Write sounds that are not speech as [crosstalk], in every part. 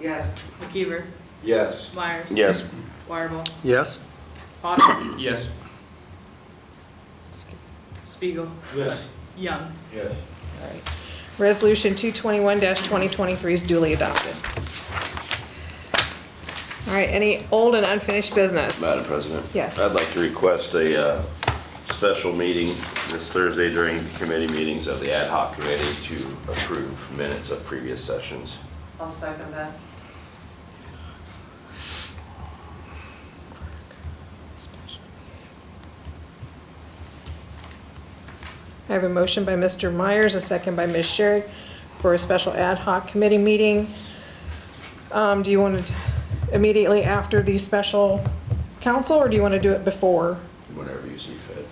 Yes. McKeever. Yes. Myers. Yes. Wireball. Yes. Potter. [coughs] Yes. Spiegel. Yes. Young. Yes. All right. Resolution 221-2023 is duly adopted. All right, any old and unfinished business? Madam President? Yes. I'd like to request a uh, special meeting this Thursday during committee meetings of the ad hoc committee to approve minutes of previous sessions. I'll second that. I have a motion by Mr. Myers, a second by Ms. Sherrick for a special ad hoc committee meeting. Um, Do you want to immediately after the special council, or do you want to do it before? Whenever you see fit.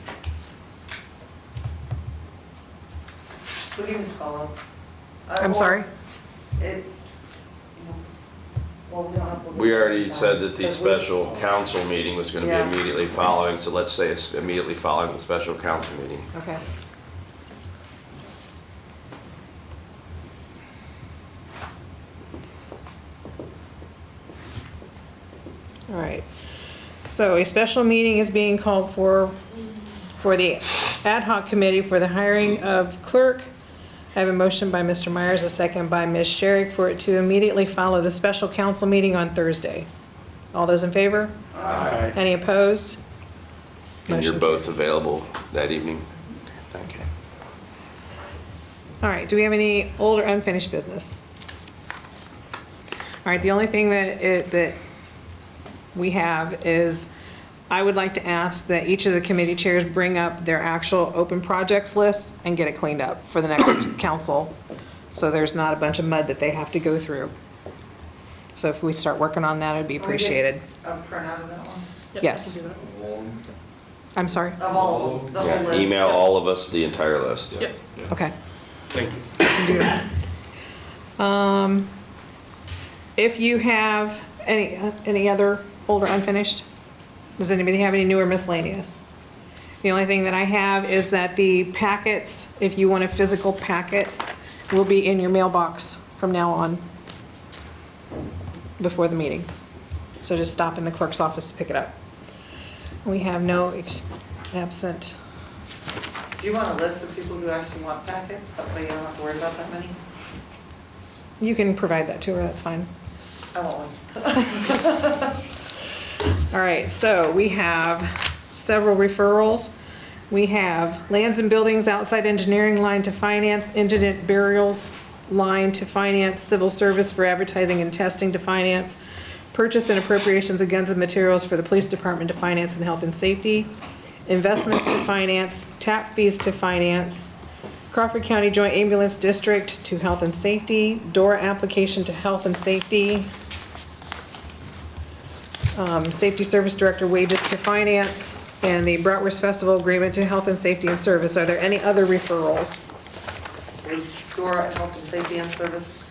Who do you follow? Uh, I'm sorry? It, well, we don't have. We already said that the But we- special council meeting was going to Yeah. be immediately following, so let's say it's immediately following the special council meeting. Okay. All right. So a special meeting is being called for, for the ad hoc committee for the hiring of clerk. I have a motion by Mr. Myers, a second by Ms. Sherrick for it to immediately follow the special council meeting on Thursday. All those in favor? Aye. Any opposed? And you're Motion both available that evening? Thank you. All right, do we have any old or unfinished business? All right, the only thing that, it- that we have is, I would like to ask that each of the committee chairs bring up their actual open projects list and get it cleaned up for the next council, so there's not a bunch of mud that they have to go through. So if we start working on that, it'd be Can we get appreciated. A printout of that one? Yep, Yes. I can do I'm sorry? Of all, of them, the whole Yeah, list? email all of us the entire list. that. Yep. Okay. Thank you. Um, If you have any, any other old or unfinished, does anybody have any new or miscellaneous? The only thing that I have is that the packets, if you want a physical packet, will be in your mailbox from now on before the meeting. So just stop in the clerk's office to pick it up. We have no ex- absent. Do you want a list of people who actually want packets? That way you don't have to worry about that many? You can provide that to her, that's fine. I want one. All right, so we have several referrals. We have lands and buildings outside engineering line to finance, indigent burials line to finance, civil service for advertising and testing to finance, purchase and appropriations of guns and materials for the police department to finance and health and safety, investments to finance, tap fees to finance, Crawford County Joint Ambulance District to health and safety, DORA application to health and safety, um, Safety Service Director wages to finance, and the Bratwurst Festival agreement to health and safety and service. Are there any other referrals? Was Dora Health and Safety and Service?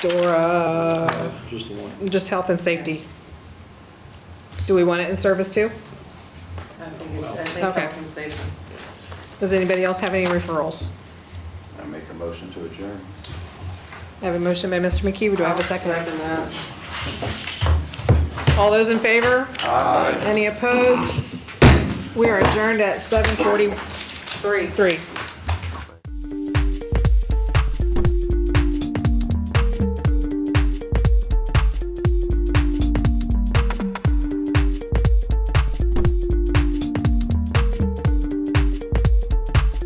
Dora, Just the one. just health and safety. Do we want it in service too? I think it's, I think Okay. Health and Safety. Does anybody else have any referrals? I make a motion to adjourn. I have a motion by Mr. McKeever. Do I have I'll a second? that. All those in favor? Aye. Any opposed? We are adjourned at 7:43. Three.